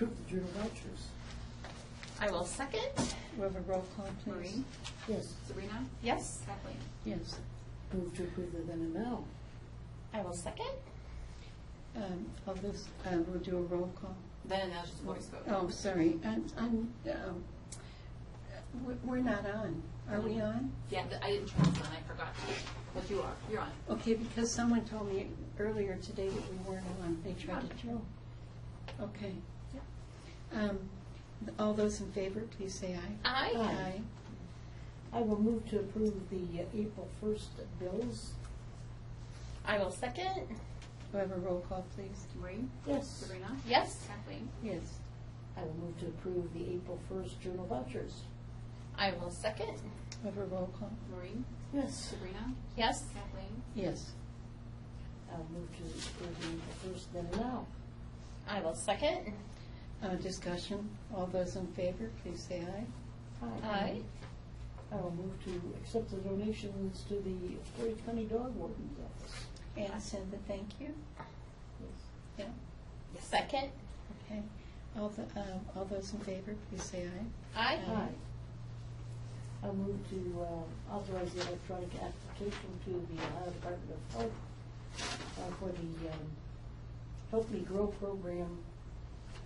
approve the journal vouchers. I will second. We have a roll call, please. Maureen? Yes, Sabrina? Yes. Kathleen? Yes. move to approve the then and now. I will second. Um, All this, uh, we'll do a roll call. Then and now just voice vote. Oh, sorry, I'm, I'm, um, we- we're not on. Are we on? Yeah, th- I didn't turn this on, I forgot. But you are, you're on. Okay, because someone told me earlier today that we weren't on. They tried to drill. Okay. Yeah. Um, All those in favor, please say aye. I, Aye. I will move to approve the uh, April 1st bills. I will second. We have a roll call, please. Maureen? Yes, Sabrina? Yes. Kathleen? Yes. I will move to approve the April 1st journal vouchers. I will second. We have a roll call. Maureen? Yes, Sabrina? Yes. Kathleen? Yes. I'll move to approve the April 1st then and now. I will second. Uh, Discussion, all those in favor, please say aye. I, I will move to accept the donations to the Portage County Dog Warden's Office. And send the thank you. Yes. Yeah, second. okay. All the, um, all those in favor, please say aye. I, Aye. I'll move to uh, authorize the electronic application to the Ohio Department of Health uh, for the um, Help Me Grow program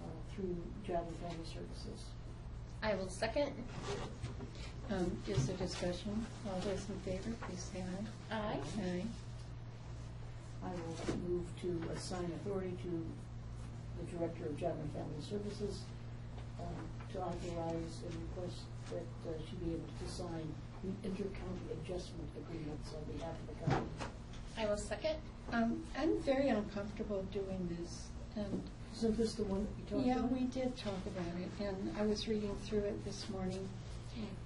uh, through Job and Family Services. I will second. Um, Is there discussion? All those in favor, please say aye. I, Aye. I will move to assign authority to the Director of Job and Family Services um, to authorize and request that uh, she be able to sign the intercounty adjustment agreements on behalf of the county. I will second. Um, I'm very uncomfortable doing this. Um, Isn't this the one that we talked Yeah, about? we did talk about it, and I was reading through it this morning.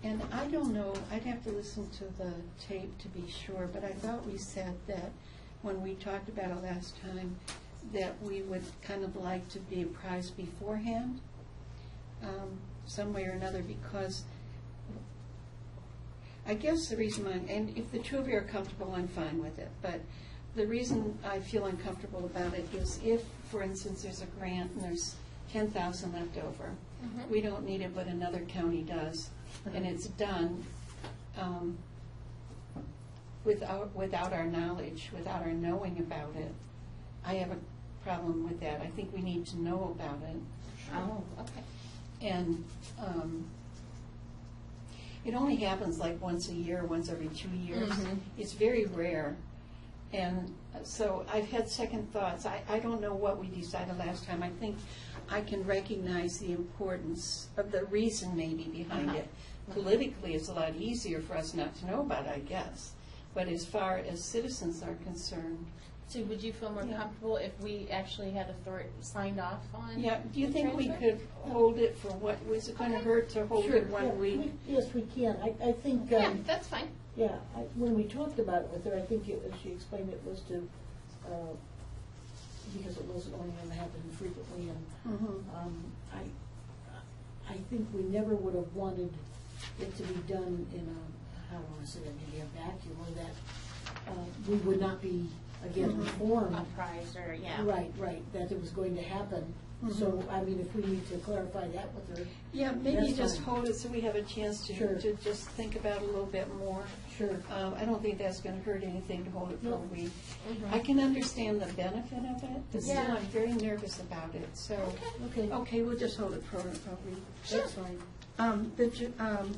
And I don't know, I'd have to listen to the tape to be sure, but I thought we said that when we talked about it last time, that we would kind of like to be apprised beforehand, um, some way or another, because I guess the reason I'm, and if the two of you are comfortable, I'm fine with it, but the reason I feel uncomfortable about it is if, for instance, there's a grant and there's ten thousand left over, Mhm. we don't need it, but another county does, and it's done, um, without, without our knowledge, without our knowing about it, I have a problem with that. I think we need to know about it. Oh, okay. And um, it only happens like once a year, once every two years. Mm-hmm. Mhm. It's very rare. And uh, so I've had second thoughts. I, I don't know what we decided last time. I think I can recognize the importance of the reason maybe behind Uh-huh. it. Politically, it's a lot easier for us not to know about, it, I guess. But as far as citizens are concerned, So would you feel more Yeah. comfortable if we actually had authority signed off on? yeah, do you the think we transfer? could hold it for what, was it going to hurt to hold Sure, it yeah, one week? we- Yes, we can. I, I think, Yeah, um, that's fine. yeah, I, when we talked about it with her, I think it, was- she explained it was to, uh, because it wasn't only going to happen frequently, and, Mhm. um, I, I think we never would have wanted it to be done in a, how do I wanna say that, maybe a vacuum, or that, uh, we would not be, again, Mhm. informed. A prize or, yeah. Right, right, that it was going to happen. So, I mean, if we need to clarify that with her, Yeah, maybe That's just fine. hold it so we have a chance Sure. to, to just think about it a little bit more. sure. Um, I don't think that's gonna hurt anything to hold it for a No. week. Mm-hmm. Mhm. I can understand the benefit of it, but still, Yeah. I'm very nervous about it, so. Okay. Okay, we'll just hold it for a week. That's fine. Um, the, ju- um,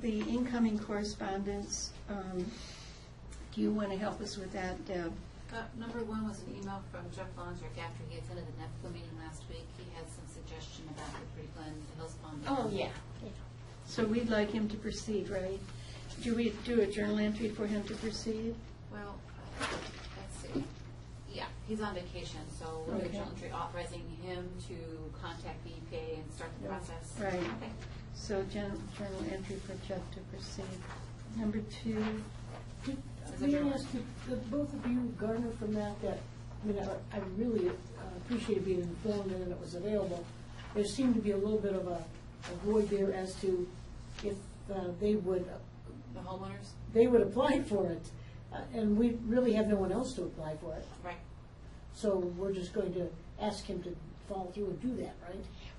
the incoming correspondence, um, do you wanna help us with that, Deb? Got- uh, Number one was an email from Jeff Longrick after he attended the NEPCO meeting last week. He had some suggestion about the Pretty Glen Hills Pond. Oh, yeah. So we'd like him to proceed, right? Do we do a journal entry for him to proceed? Well, uh, let's see. Yeah, he's on vacation, so we'll get Okay. journal entry authorizing him to contact the EPA and start the Yeah. process. Right. Okay. So gen- journal entry for Jeff to proceed. Number two, Did- As a May I journalist. ask, did did both of you garner from that that, I mean, I- I really uh, appreciate being informed and that it was available. There seemed to be a little bit of a a void there as to if uh, they would, The homeowners? they would apply for it. Uh, And we really have no one else to apply for it. Right. So we're just going to ask him to follow through and do that, right?